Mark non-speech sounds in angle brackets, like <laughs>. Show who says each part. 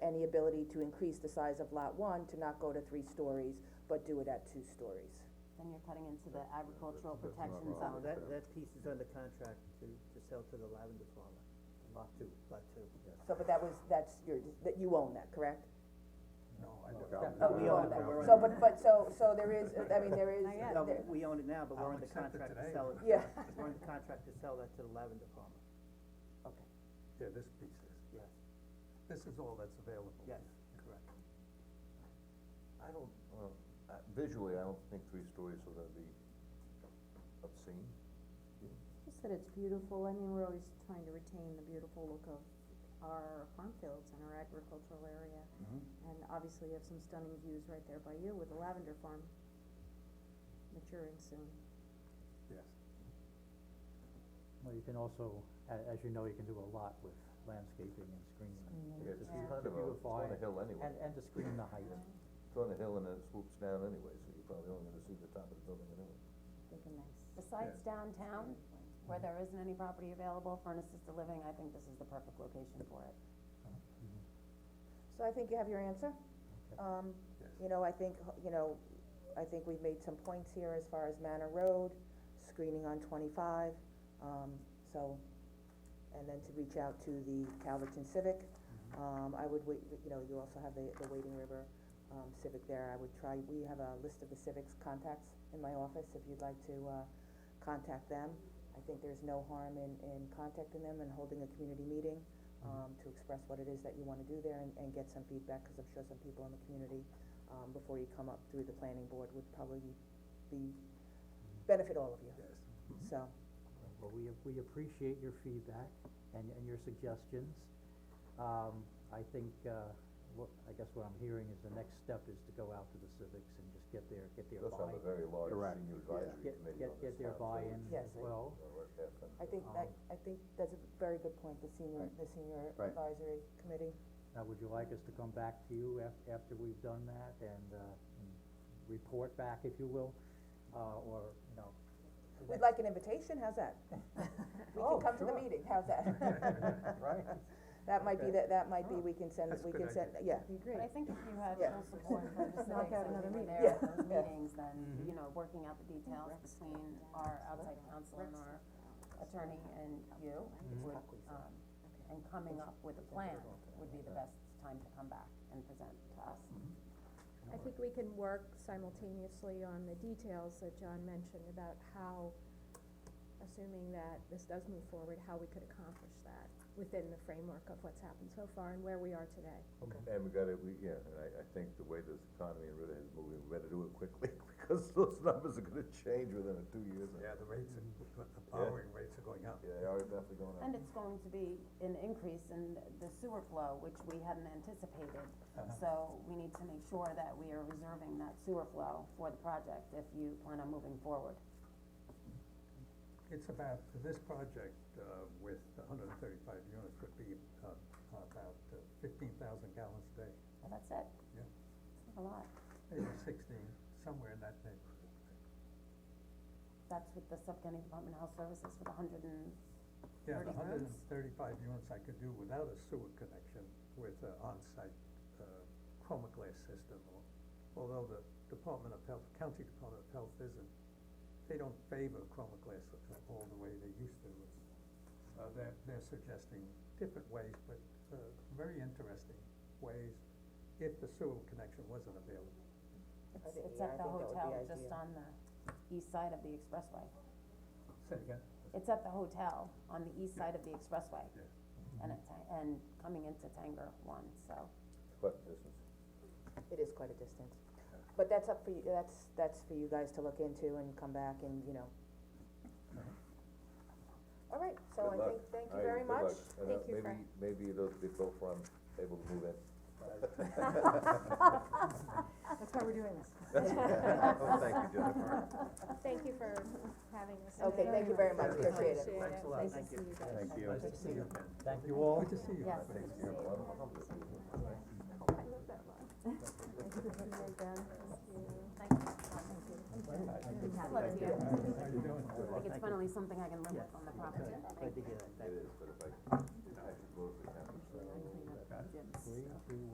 Speaker 1: ability to increase the size of lot one to not go to three stories, but do it at two stories.
Speaker 2: Then you're cutting into the agricultural protection
Speaker 3: No,
Speaker 2: zone.
Speaker 3: Oh, that, that piece is under contract to, to sell to the lavender farmer, lot two, lot two, yes.
Speaker 1: So, but that was, that's your, that you own that, correct?
Speaker 3: No, I
Speaker 1: Oh, you own that, so, but, but, so, so there is, I mean, there is,
Speaker 2: Not yet.
Speaker 3: No,
Speaker 1: there-
Speaker 3: we own it now, but we're
Speaker 4: I'll
Speaker 3: under
Speaker 4: accept it
Speaker 3: contract to
Speaker 4: today.
Speaker 3: sell it,
Speaker 1: yeah,
Speaker 3: we're under contract to sell that to the lavender farmer,
Speaker 1: okay.
Speaker 4: Yeah, this piece is,
Speaker 3: yes,
Speaker 4: this is all that's available.
Speaker 3: yes, correct.
Speaker 5: I don't, well, uh, visually, I don't think three stories will gonna be obscene.
Speaker 6: Just that it's beautiful, I mean, we're always trying to retain the beautiful look of our farm fields and our agricultural area. And obviously you have some stunning views right there by you with the lavender farm maturing soon.
Speaker 4: Yes.
Speaker 7: Well, you can also, a- as you know, you can do a lot with landscaping and screening.
Speaker 5: Yeah, it's
Speaker 6: Yeah.
Speaker 5: kind of a, it's on a hill anyway,
Speaker 7: And, and to screen the height.
Speaker 5: it's on a hill and it swoops down anyway, so you're probably only gonna see the top of the building anyway.
Speaker 6: Make a nice.
Speaker 2: Besides downtown, where there isn't any property available for an assisted living, I think this is the perfect location for it.
Speaker 7: Mm-hmm.
Speaker 1: So I think you have your answer. Um,
Speaker 4: Yes.
Speaker 1: you know, I think, you know, I think we've made some points here as far as Manor Road, screening on twenty-five, um, so, and then to reach out to the Calverton Civic. Um, I would wait, you know, you also have the, the Wading River, um, Civic there, I would try, we have a list of the civics contacts in my office, if you'd like to, uh, contact them. I think there's no harm in, in contacting them and holding a community meeting, um,
Speaker 4: Mm-hmm.
Speaker 1: to express what it is that you wanna do there and, and get some feedback, cause I'm sure some people in the community, um, before you come up through the planning board would probably be, benefit all of you,
Speaker 4: Yes.
Speaker 1: so.
Speaker 7: Well, we, we appreciate your feedback and, and your suggestions. Um, I think, uh, what, I guess what I'm hearing is the next step is to go out to the civics and just get their, get their
Speaker 5: It does have a
Speaker 7: buy.
Speaker 5: very large
Speaker 4: Correct.
Speaker 5: senior advisory
Speaker 7: Get,
Speaker 5: committee
Speaker 7: get,
Speaker 5: on this
Speaker 7: get their
Speaker 5: town, so
Speaker 7: buy-in
Speaker 1: Yes,
Speaker 7: as
Speaker 1: I-
Speaker 7: well. Um,
Speaker 5: it's gonna work out fun.
Speaker 1: I think that, I think that's a very good point, the senior,
Speaker 4: Um, Right.
Speaker 1: the senior
Speaker 4: Right.
Speaker 1: advisory committee.
Speaker 7: Now, Uh, would you like us to come back to you af- after we've done that and, uh, and report back, if you will? Uh, or, you know,
Speaker 1: We'd like an invitation, how's
Speaker 5: <laughs>
Speaker 1: that? We
Speaker 7: Oh,
Speaker 1: can come to the
Speaker 7: sure.
Speaker 1: meeting, how's that?
Speaker 7: right?
Speaker 1: That might be, that, that might
Speaker 5: Oh,
Speaker 1: be, we can send,
Speaker 4: That's a
Speaker 1: we
Speaker 4: good
Speaker 1: can send, yeah,
Speaker 2: But I think if you have
Speaker 1: Yeah.
Speaker 2: full support from <laughs> the
Speaker 6: Knock
Speaker 2: civics,
Speaker 6: out
Speaker 2: and
Speaker 6: another
Speaker 2: we were
Speaker 6: meeting.
Speaker 2: there at
Speaker 1: Yeah.
Speaker 2: those
Speaker 1: Yeah.
Speaker 2: meetings, then, you know, working out the details between our outside counsel and our attorney and you would, um, and coming up with a plan would be the best time to come back and present to us.
Speaker 6: I think we can work simultaneously on the details that John mentioned about how, assuming that this does move forward, how we could accomplish that within the framework of what's happened so far and where we are today.
Speaker 5: And we gotta, we, yeah, and I, I think the way this economy in Ritter is moving, we better do it quickly, <laughs> because those numbers are gonna change within a two years.
Speaker 4: Yeah, the rates, are- the borrowing rates are going up.
Speaker 5: Yeah, they are definitely going up.
Speaker 2: And it's going to be an increase in the sewer flow, which we hadn't anticipated. So we need to make sure that we are reserving that sewer flow for the project if you plan on moving forward.
Speaker 4: It's about, this project, uh, with hundred and thirty-five units would be, uh, about fifteen thousand gallons a day.
Speaker 2: Well, that's it.
Speaker 4: Yeah.
Speaker 2: It's not a lot.
Speaker 4: Maybe sixteen, somewhere in that neighborhood.
Speaker 2: That's with the Suffolk County Department of Health Services with a hundred and,
Speaker 4: Yeah, the
Speaker 2: 30
Speaker 4: hundred and
Speaker 2: units?
Speaker 4: thirty-five units I could do without a sewer connection with an onsite, uh, chromoglass system, al- although the Department of Health, County Department of Health isn't, they don't favor chromoglass all the way they used to. Uh, they're, they're suggesting different ways, but, uh, very interesting ways, if the sewer connection wasn't available.
Speaker 2: it's,
Speaker 1: think-
Speaker 2: it's
Speaker 1: yeah, I
Speaker 2: at
Speaker 1: think
Speaker 2: the
Speaker 1: that would
Speaker 2: hotel,
Speaker 1: be
Speaker 2: just
Speaker 1: ideal.
Speaker 2: on the east side of the expressway.
Speaker 4: Say again?
Speaker 2: It's at the hotel on the east side of the expressway.
Speaker 4: Yeah.
Speaker 2: And it's, and coming into Tanger one, so.
Speaker 5: But this is,
Speaker 1: it is quite a distance. But that's up for you, that's, that's for you guys to look into and come back and, you know. All right, so I
Speaker 5: Mm-hmm. Good luck.
Speaker 1: think, thank
Speaker 5: All
Speaker 1: you
Speaker 5: right,
Speaker 1: very
Speaker 5: good luck.
Speaker 1: much.
Speaker 5: And, uh,
Speaker 6: Thank you, Frank.
Speaker 5: Maybe, maybe those big both farms able to move in.
Speaker 1: <laughs>
Speaker 6: That's why we're doing this.
Speaker 5: Oh, thank you, Jennifer.
Speaker 6: Thank you for having us.
Speaker 1: Okay, thank you very much, appreciate it.
Speaker 6: Thanks
Speaker 3: a lot.
Speaker 6: Nice to
Speaker 3: Thank
Speaker 6: see
Speaker 3: you.
Speaker 6: you guys.
Speaker 5: Thank
Speaker 7: Nice to see you. Thank you all.
Speaker 4: Good to see you.
Speaker 2: Yes.
Speaker 4: Thank you.
Speaker 5: You're welcome.
Speaker 2: Like it's finally something I can live with on the property.
Speaker 3: Good to hear that, thank
Speaker 5: It
Speaker 3: you.
Speaker 5: is, but if I,